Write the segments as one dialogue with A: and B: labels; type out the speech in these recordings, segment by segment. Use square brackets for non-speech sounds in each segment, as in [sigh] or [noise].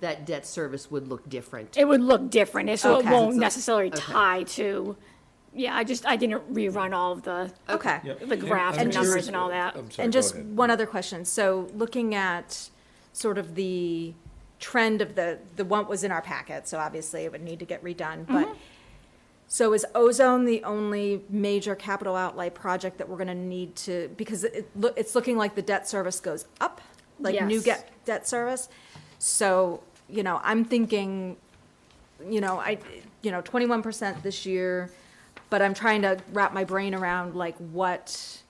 A: that debt service would look different.
B: It would look different, so it
A: Okay.
B: won't necessarily
A: Okay.
B: tie to, yeah, I just, I didn't rerun all of the,
C: Okay.
B: the graph
D: I'm
B: and numbers
D: curious-
B: and all that.
D: I'm sorry,
C: And
D: go
C: just
D: ahead.
C: one other question. So looking at sort of the trend of the, the one was in our packet, so obviously it would need to get redone, but. So is ozone the only major capital outlay project that we're gonna need to, because it, it loo- it's looking like the debt service goes up? Like new
B: Yes.
C: get, debt service? So, you know, I'm thinking, you know, I, you know, twenty-one percent this year, but I'm trying to wrap my brain around like what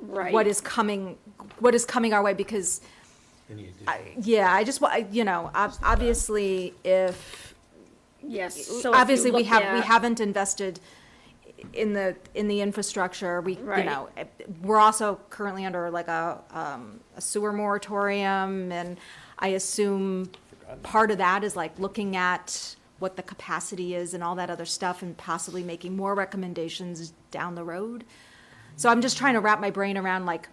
B: Right.
C: what is coming, what is coming our way, because, I- yeah, I just, wa- I- you know, ob- obviously, if,
B: Yes. so if you
C: obviously, we
B: look
C: have, we
B: at-
C: haven't invested in the, in the infrastructure, we, you
B: Right.
C: know, eh, we're also currently under like a, um, a sewer moratorium, and I assume part of that is like looking at what the capacity is and all that other stuff, and possibly making more recommendations down the road. So I'm just trying to wrap my brain around like,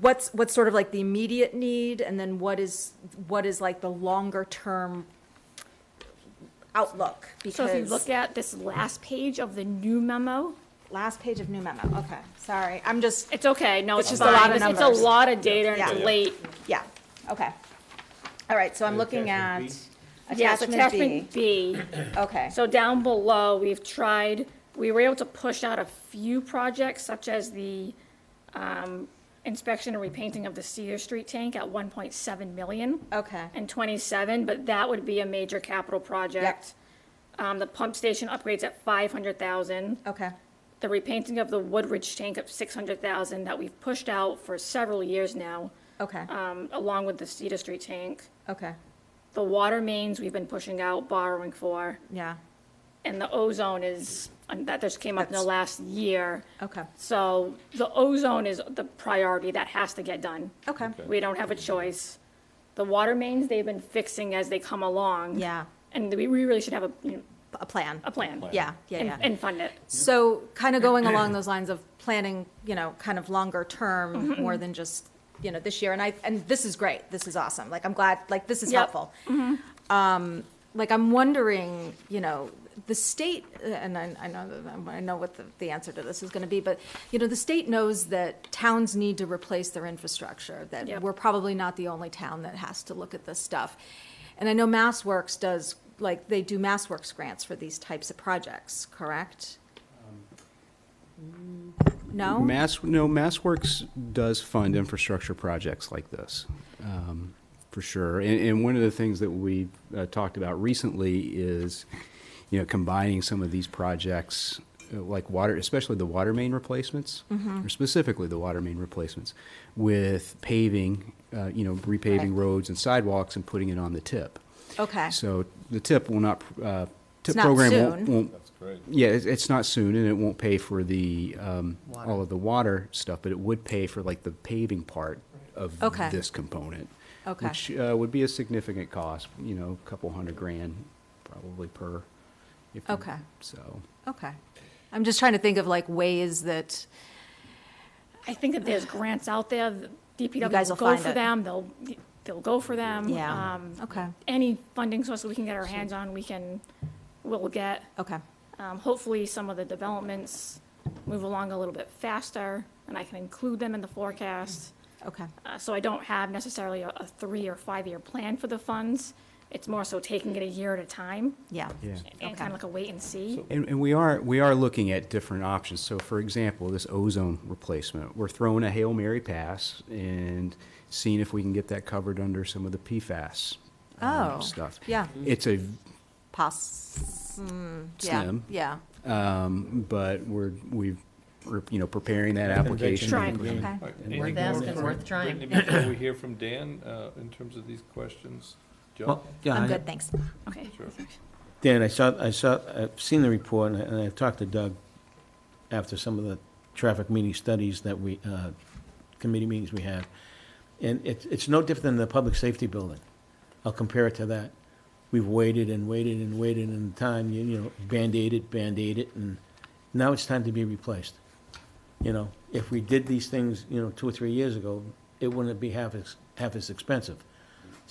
C: what's what's sort of like the immediate need and then what is what is like the longer term outlook
B: So if you
C: because
B: look at this last page of the new memo,
C: last page of new memo okay sorry i'm just
B: it's okay, no, it's
C: just
B: just
C: a
B: fine.
C: lot of
B: It's it's a
C: numbers.
B: lot of data and
C: Yeah.
B: it's
C: Yeah.
B: late.
C: yeah okay all right so i'm looking at
D: attachment
B: Yes,
C: attachment,
B: attachment B.
C: b okay
B: So down below, we've tried, we were able to push out a few projects such as the um, inspection and repainting of the Cedar Street tank at 1.7 million.
C: okay
B: and 27, but that would be a major capital project. Um, The pump station upgrades at 500,000,
C: okay
B: the repainting of the Woodridge tank at 600,000 that we've pushed out for several years now,
C: okay
B: um, along with the Cedar Street tank.
C: okay
B: The water mains we've been pushing out, borrowing for,
C: yeah
B: and the ozone is, and that just came up in the
C: That's-
B: last year.
C: okay
B: So the ozone is the priority that has to get done.
C: okay,
B: We don't have a choice. The water mains, they've been fixing as they come along.
C: yeah
B: And we we really should have a, you know,
C: a plan
B: a plan.
C: yeah yeah
B: And,
C: yeah
B: and fund it.
C: So kind of going along those lines of planning, you know, kind of longer
B: Mm-hmm,
C: term, more than just, you know, this year. And I, and this is great. This is awesome. Like, I'm glad, like, this is
B: Yep. Mm-hmm.
C: helpful. Um, like, I'm wondering, you know, the state, uh, and I, I know, that- um, I know what the, the answer to this is going to be, but, you know, the state knows that towns need to replace their infrastructure, that
B: Yep.
C: we're probably not the only town that has to look at this stuff. And I know MassWorks does, like, they do MassWorks grants for these types of projects, correct? No?
E: Mass, no, MassWorks does fund infrastructure projects like this, um, for sure. And, and one of the things that we uh, talked about recently is, you know, combining some of these projects, uh, like water, especially the water main replacements,
B: Mm-hmm.
E: or specifically the water main replacements, with paving, uh, you know, repaving
C: Right.
E: roads and sidewalks and putting it on the tip.
C: Okay.
E: So the tip will not, uh,
C: It's
E: tip
C: not
E: program
C: soon.
E: won't, won't
D: That's great.
E: yeah, it's, it's not soon, and it won't pay for the, um,
A: Water.
E: all of the water stuff, but it would pay for like the paving part of
C: Okay.
E: this component.
C: Okay.
E: Which, uh, would be a significant cost, you know, a couple hundred grand probably per. if you-
C: Okay.
E: So,
C: Okay. I'm just trying to think of like ways that,
B: I think that there's grants out there, the
C: guys
B: DPW
C: will
B: will go
C: find
B: for
C: it.
B: them, they'll, they'll go for them.
C: Yeah.
B: Um,
C: okay,
B: Any funding source that we can get our hands on, we can, we'll get.
C: okay.
B: Um, Hopefully, some of the developments move along a little bit faster, and I can include them in the forecast.
C: Okay,
B: Uh, So I don't have necessarily a, a three or five-year plan for the funds. It's more so taking it a year at a time
C: yeah.
E: yeah.
B: and
C: Okay.
B: kind of like a wait and see.
E: And, and we are, we are looking at different options. So for example, this ozone replacement, we're throwing a Hail Mary pass and seeing if we can get that covered under some of the PFAS um,
C: Oh,
E: stuff.
C: yeah.
E: It's a
C: Poss, mm, yeah,
E: Slim.
C: yeah,
E: Um, but we're, we've, we're, you know, preparing that application.
B: Try.
C: okay.
D: Anything
A: Worth
D: more
A: asking,
D: from
A: worth trying.
D: Brittany
A: [laughs]
D: Before we hear from Dan, uh, in terms of these questions, Joe?
F: Well, yeah,
C: I'm
F: I-
C: good, thanks.
B: Okay.
D: Sure.
F: Dan, I saw, I saw, I've seen the report, and I- and I've talked to Doug after some of the traffic meeting studies that we, uh, committee meetings we have. And it's, it's no different than the public safety building. I'll compare it to that. We've waited and waited and waited and time, you you know, Band-Aid it, Band-Aid it, and now it's time to be replaced. You know, if we did these things, you know, two or three years ago, it wouldn't be half as, half as expensive.